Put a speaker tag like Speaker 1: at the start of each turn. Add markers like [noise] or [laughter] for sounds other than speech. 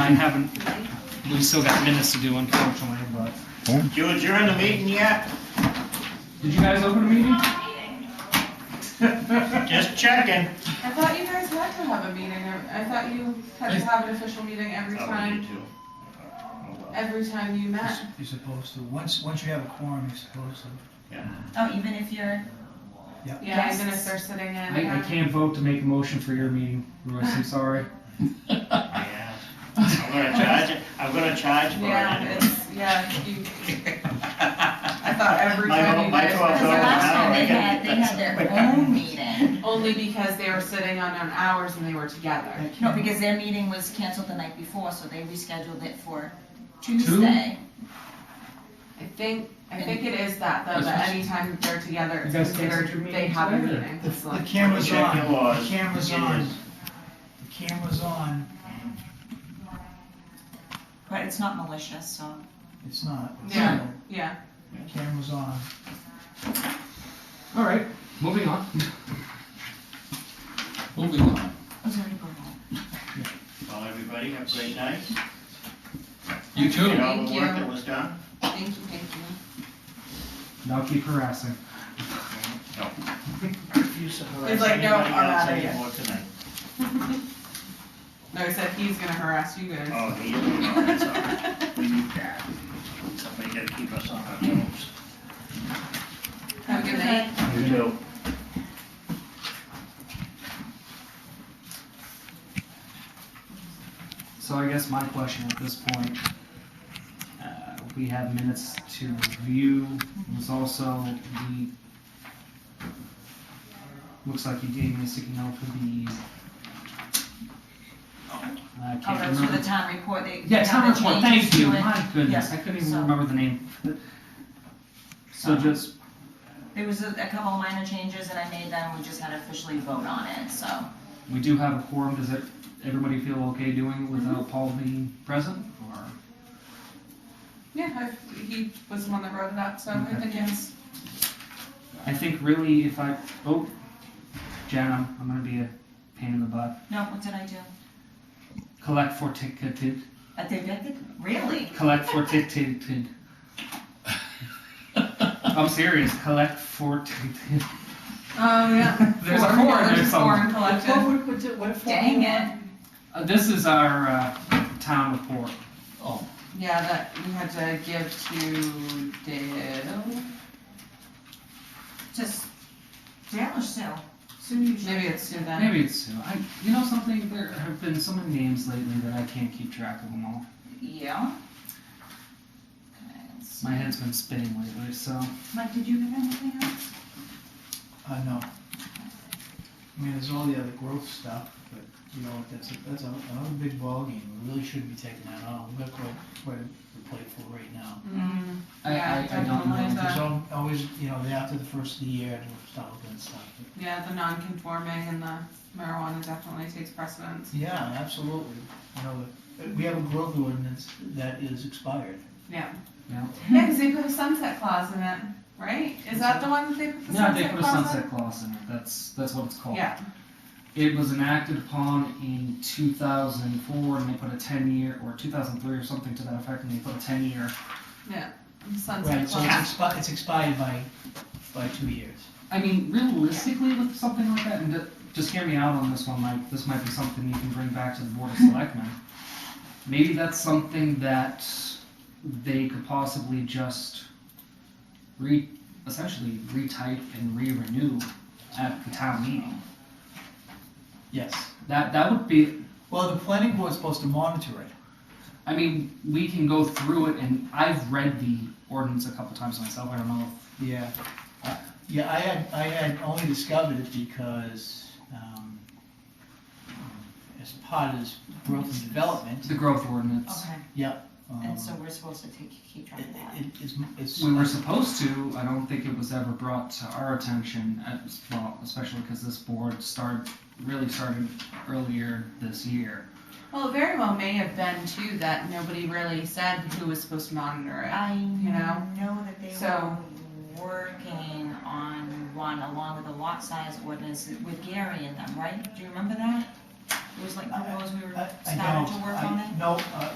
Speaker 1: I haven't, we still got minutes to do unfortunately, but.
Speaker 2: Jude, you're in the meeting yet?
Speaker 1: Did you guys open a meeting?
Speaker 2: Just checking.
Speaker 3: I thought you guys had to have a meeting, I I thought you had to have an official meeting every
Speaker 2: Oh,
Speaker 3: time, every time you met.
Speaker 4: You're supposed to, once, once you have a quorum, you're supposed to.
Speaker 5: Oh, even if you're,
Speaker 3: Yeah, even if they're sitting in.
Speaker 1: I, I can't vote to make a motion for your meeting, Royce, I'm
Speaker 5: [laughs]
Speaker 1: sorry.
Speaker 2: Yeah. I'm gonna charge it, I'm gonna charge for
Speaker 3: Yeah,
Speaker 2: it.
Speaker 3: it's, yeah, you, I thought every
Speaker 2: My-
Speaker 3: time you
Speaker 2: my
Speaker 3: guys
Speaker 1: Oh,
Speaker 2: twelve
Speaker 3: were
Speaker 2: dollars
Speaker 5: because
Speaker 2: an
Speaker 5: last
Speaker 3: there,
Speaker 2: hour,
Speaker 5: time
Speaker 2: I
Speaker 5: they
Speaker 2: gotta get
Speaker 5: had, they
Speaker 2: that
Speaker 5: had their
Speaker 2: somewhere.
Speaker 5: own meeting.
Speaker 3: only because they were sitting on their hours and they were together.
Speaker 5: No, because their meeting was canceled the night before, so they rescheduled it for Tuesday.
Speaker 3: I think, I think it is that, though, that anytime they're together, it's
Speaker 1: You guys canceled
Speaker 3: considered,
Speaker 1: your
Speaker 3: they
Speaker 1: meeting
Speaker 3: have a
Speaker 1: today, or-
Speaker 3: meeting, it's
Speaker 4: The
Speaker 3: like,
Speaker 4: camera's
Speaker 2: Check
Speaker 4: on,
Speaker 2: your laws.
Speaker 4: the camera's
Speaker 2: It
Speaker 4: on,
Speaker 2: is.
Speaker 4: the camera's on,
Speaker 5: But it's not malicious, so.
Speaker 4: it's not. It's
Speaker 3: Yeah.
Speaker 4: on.
Speaker 3: yeah.
Speaker 4: The Camera's on.
Speaker 1: All right, moving on.
Speaker 6: Moving on.
Speaker 5: It's already going on.
Speaker 2: Well, everybody, have a great night.
Speaker 6: You
Speaker 2: Did
Speaker 6: too.
Speaker 2: all the work
Speaker 3: Thank you.
Speaker 2: that was done.
Speaker 3: Thank you, thank you.
Speaker 1: Now keep harassing.
Speaker 3: He's like, no, I'm
Speaker 2: Anybody else
Speaker 3: outta here.
Speaker 2: anymore tonight?
Speaker 3: [laughs] No, he said he's gonna harass you guys.
Speaker 2: Oh, he,
Speaker 3: [laughs]
Speaker 2: oh, that's all right. We need that. Somebody gotta keep us on our toes.
Speaker 3: Have a good night.
Speaker 2: You too.
Speaker 1: So I guess my question at this point, uh, we have minutes to review, was also the, looks like you gave me a sticky note for the, I
Speaker 5: Oh,
Speaker 1: can't
Speaker 5: that's for the
Speaker 1: remember.
Speaker 5: town report, they.
Speaker 1: Yeah,
Speaker 5: how
Speaker 1: town
Speaker 5: they
Speaker 1: report,
Speaker 5: changed
Speaker 1: thank you,
Speaker 5: to it.
Speaker 1: my goodness,
Speaker 5: Yeah,
Speaker 1: I couldn't even
Speaker 5: so-
Speaker 1: remember the name. So
Speaker 5: So-
Speaker 1: just,
Speaker 5: There was a a couple of minor changes that I made then, we just had to officially vote on it, so.
Speaker 1: we do have a quorum, does it, everybody feel okay doing it without Paul being present, or?
Speaker 3: Yeah, I, he was the one that wrote it up, so I
Speaker 1: Okay.
Speaker 3: think yes.
Speaker 1: I think really if I, oh, Jen, I'm, I'm gonna be a pain in the butt.
Speaker 5: No, what did I do?
Speaker 1: Collect for ticketed,
Speaker 5: I did, I did, really?
Speaker 1: collect for ticketed. I'm serious, collect for ticketed.
Speaker 3: Oh, yeah.
Speaker 1: [laughs] There's a four in there
Speaker 3: There's a four in
Speaker 1: somewhere.
Speaker 3: collection.
Speaker 5: Dang it.
Speaker 1: Uh, This is our, uh, town report.
Speaker 3: Yeah, that we had to give to Dale.
Speaker 5: Just, Dale or Sue? Sue
Speaker 3: Maybe it's to them.
Speaker 1: Maybe it's Sue. I, you know something, there have been so many names lately that I can't keep track of them all.
Speaker 5: Yeah. Okay, let's see.
Speaker 1: My head's been spinning lately, so.
Speaker 5: Mike, did you have anything else?
Speaker 4: Uh, no. I mean, there's all the other growth stuff, but, you know, that's, a that's a- another big ballgame, we really shouldn't be taking that on, we've got quite, quite a plateful right now.
Speaker 3: Mm,
Speaker 1: I, I, I don't
Speaker 3: Yeah,
Speaker 1: know.
Speaker 4: There's al- always, you know, after the first of the year, we'll start looking at stuff, but
Speaker 3: yeah, the non-conforming and the marijuana definitely takes [laughs] precedence.
Speaker 4: Yeah, absolutely. You know, but we have a growth ordinance that is expired.
Speaker 3: Yeah.
Speaker 1: Yeah.
Speaker 3: Yeah, because they put a sunset clause in it, right? Is that the one that they put the
Speaker 1: Yeah, they put a
Speaker 3: sunset clause in?
Speaker 1: sunset clause in it, that's, that's what it's called.
Speaker 3: Yeah,
Speaker 1: It was enacted upon in 2004, and they put a 10-year, or 2003 or something to that effect, and they put a 10-year.
Speaker 4: Right,
Speaker 3: sunset
Speaker 4: so it's
Speaker 3: clause.
Speaker 4: expired, it's expired by, by two years.
Speaker 1: I mean, realistically, with something like that, and ju- just hear me out on this one, Mike. This might be something you can bring back to the Board of Selectmen. Maybe that's something that they could possibly just re, essentially retype and re-renew at the town meeting.
Speaker 4: Yes.
Speaker 1: That that would be
Speaker 4: Well, the planning board's supposed to monitor it.
Speaker 1: I mean, we can go through it, and I've read the ordinance a couple times myself. I don't know.
Speaker 4: Yeah. Uh, Yeah, I had, I had only discovered it because, um, as part of this growth and
Speaker 1: It's
Speaker 4: development,
Speaker 1: the growth ordinance.
Speaker 5: Okay,
Speaker 4: um,
Speaker 5: and so we're supposed to take, keep
Speaker 4: it,
Speaker 5: track of that.
Speaker 4: it, it's, it's.
Speaker 1: We were supposed to. I don't think it was ever brought to our attention. As well, especially because this board started really started earlier this year.
Speaker 3: Well, it very well may have been too that nobody really said who was supposed to monitor it.
Speaker 5: I
Speaker 3: You know?
Speaker 5: know that they were
Speaker 3: So-
Speaker 5: working on one along with the lot size ordinance with Gary in them, right? Do you remember that? was like proposed we were
Speaker 4: I- I
Speaker 5: starting
Speaker 4: don't.
Speaker 5: to work
Speaker 4: I-
Speaker 5: on that?
Speaker 4: No, uh,